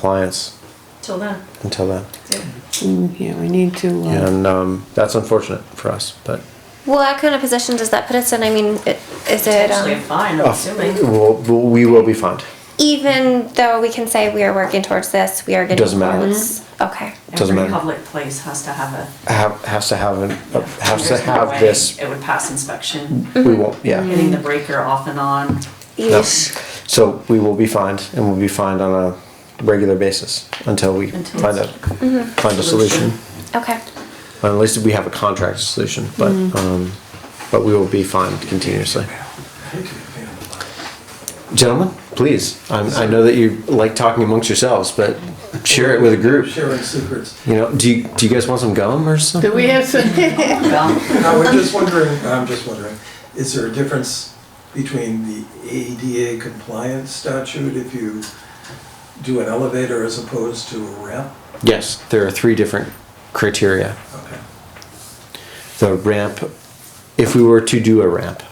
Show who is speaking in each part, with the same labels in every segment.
Speaker 1: compliance
Speaker 2: Till then, um,
Speaker 1: until then.
Speaker 2: yeah.
Speaker 3: Mm, Yeah, we need to, uh,
Speaker 1: And um, that's unfortunate for us, but.
Speaker 4: Well, what kind of position does that put us in? I mean, it, is it
Speaker 2: Actually,
Speaker 4: um,
Speaker 2: fine, I'm
Speaker 1: Oh,
Speaker 2: assuming.
Speaker 1: uh, We'll- we'll- We will be fined.
Speaker 4: even though we can say we are working towards this, we are getting
Speaker 1: Doesn't matter.
Speaker 4: towards- Okay.
Speaker 1: Doesn't
Speaker 2: Every
Speaker 1: matter.
Speaker 2: public place has to have a.
Speaker 1: Have, has to have, an- has to
Speaker 2: There's no
Speaker 1: have
Speaker 2: way Mm-hmm.
Speaker 1: this,
Speaker 2: It would pass inspection,
Speaker 1: we won't, yeah.
Speaker 2: getting the breaker off and on.
Speaker 1: No.
Speaker 4: Yeesh.
Speaker 1: So we will be fined and we'll be fined on a regular basis until we
Speaker 2: Until
Speaker 1: find a, find a solution.
Speaker 2: Solution.
Speaker 4: Okay.
Speaker 1: At least we have a contract solution, but,
Speaker 2: Mm-hmm.
Speaker 1: um, but we will be fined continuously. Gentlemen, please, I'm, I know that you like talking amongst yourselves, but share it with a group.
Speaker 5: sharing secrets.
Speaker 1: You know, do you, do you guys want some gum or something?
Speaker 3: do we have some,
Speaker 2: Well,
Speaker 5: I was just wondering, I'm just wondering, is there a difference between the ADA compliance statute if you do an elevator as opposed to a ramp?
Speaker 1: Yes, there are three different criteria.
Speaker 5: Okay.
Speaker 1: The ramp, if we were to do a ramp,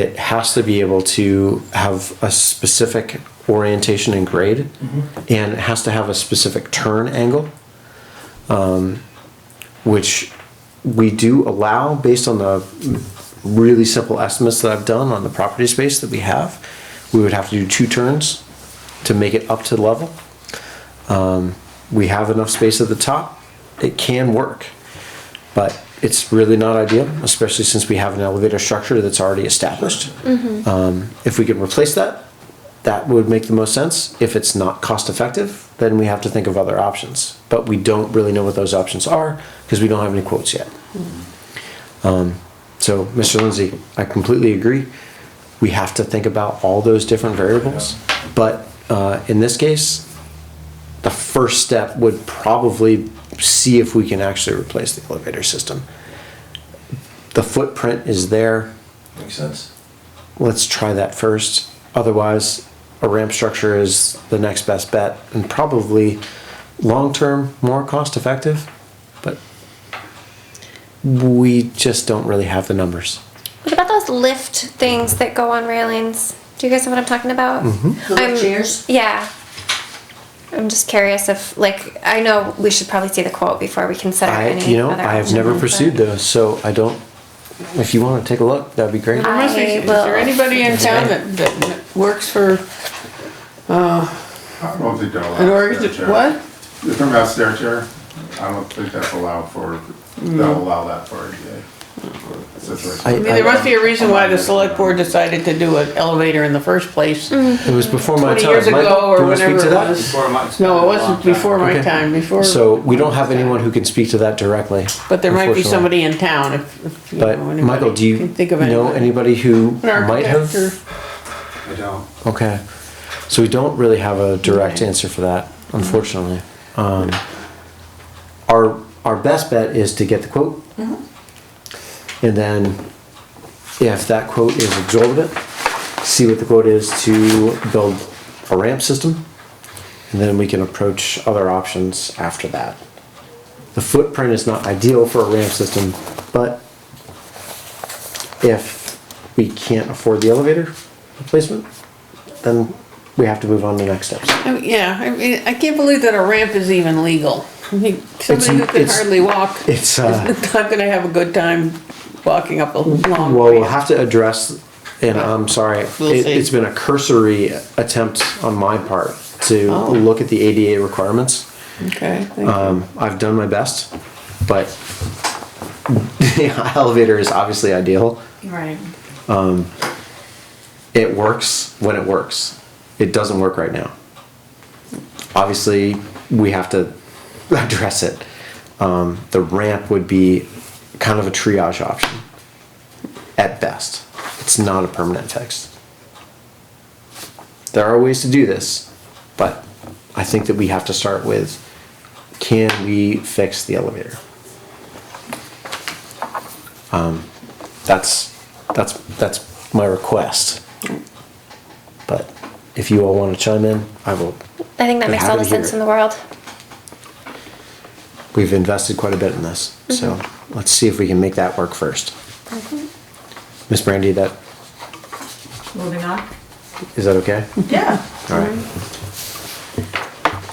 Speaker 1: it has to be able to have a specific orientation and grade, and it has to have a specific turn angle, um, which we do allow based on the really simple estimates that I've done on the property space that we have. We would have to do two turns to make it up to level. Um, we have enough space at the top. It can work, but it's really not ideal, especially since we have an elevator structure that's already established. Um, if we can replace that, that would make the most sense. If it's not cost effective, then we have to think of other options. But we don't really know what those options are because we don't have any quotes yet. Um, so, Mr. Lindsay, I completely agree. We have to think about all those different variables. But uh, in this case, the first step would probably see if we can actually replace the elevator system. The footprint is there.
Speaker 5: Makes sense?
Speaker 1: Let's try that first. Otherwise, a ramp structure is the next best bet and probably long term more cost effective, but we just don't really have the numbers.
Speaker 4: What about those lift things that go on railings? Do you guys know what I'm talking about? Mm-hmm.
Speaker 6: The chairs?
Speaker 4: Yeah. I'm just curious if, like, I know we should probably see the quote before we consider
Speaker 1: I,
Speaker 4: any
Speaker 1: you know,
Speaker 4: other
Speaker 1: I have
Speaker 4: option,
Speaker 1: never
Speaker 4: but-
Speaker 1: pursued those, so I don't. If you want to take a look, that'd be great.
Speaker 3: there must be, is there
Speaker 4: will-
Speaker 3: anybody in town that, that works for
Speaker 7: I don't think they're allowed.
Speaker 3: an org,
Speaker 7: stair chair.
Speaker 3: what?
Speaker 7: You're talking about stair chair? I don't think that's allowed for,
Speaker 3: Mm.
Speaker 7: they'll allow that for ADA. for situation.
Speaker 1: I-
Speaker 3: I mean, there must be a reason why the select board decided to do an elevator in the first place. No,
Speaker 1: It was before my
Speaker 3: 20
Speaker 1: time.
Speaker 3: years
Speaker 1: Michael,
Speaker 3: ago or
Speaker 1: do you wanna speak
Speaker 3: whenever
Speaker 1: to
Speaker 3: it
Speaker 1: that?
Speaker 3: was.
Speaker 8: Before my-
Speaker 3: it wasn't before my
Speaker 1: Okay.
Speaker 3: time, before.
Speaker 1: So we don't have anyone who can speak to that directly.
Speaker 3: But there might be
Speaker 1: unfortunately.
Speaker 3: somebody in town if, if you know
Speaker 1: But
Speaker 3: anybody.
Speaker 1: Michael, do you
Speaker 3: can think of
Speaker 1: know anybody who
Speaker 3: An
Speaker 1: might have?
Speaker 3: architect
Speaker 8: I don't.
Speaker 1: Okay, so we don't really have a direct answer for that, unfortunately. Um, our, our best bet is to get the quote. And then if that quote is exorbitant, see what the quote is to build a ramp system. And then we can approach other options after that. The footprint is not ideal for a ramp system, but if we can't afford the elevator replacement, then we have to move on to next steps.
Speaker 3: I mean, Yeah, I mean, I can't believe that a ramp is even legal. I mean, Somebody who can
Speaker 1: it's-
Speaker 3: hardly walk is
Speaker 1: It's, uh,
Speaker 3: not gonna have a good time walking up a long
Speaker 1: well, we'll
Speaker 3: ramp.
Speaker 1: have to address, and I'm sorry,
Speaker 3: We'll
Speaker 1: it,
Speaker 3: see.
Speaker 1: it's been a cursory attempt on my part to
Speaker 3: Oh.
Speaker 1: look at the ADA requirements.
Speaker 3: Okay, thank you.
Speaker 1: Um, I've done my best, but the elevator is obviously ideal.
Speaker 2: right.
Speaker 1: It works when it works. It doesn't work right now. Obviously, we have to address it. Um, the ramp would be kind of a triage option at best. It's not a permanent fix. There are ways to do this, but I think that we have to start with can we fix the elevator? Um, that's that's that's my request. But if you all want to chime in, I will.
Speaker 4: I think that
Speaker 1: They're
Speaker 4: makes all
Speaker 1: happy
Speaker 4: the
Speaker 1: to hear
Speaker 4: sense
Speaker 1: it.
Speaker 4: in the world.
Speaker 1: We've invested quite a bit in this, so let's see if we can make that work first. Miss Brandy, that
Speaker 2: Moving on.
Speaker 1: is that okay?
Speaker 6: Yeah.
Speaker 1: All right.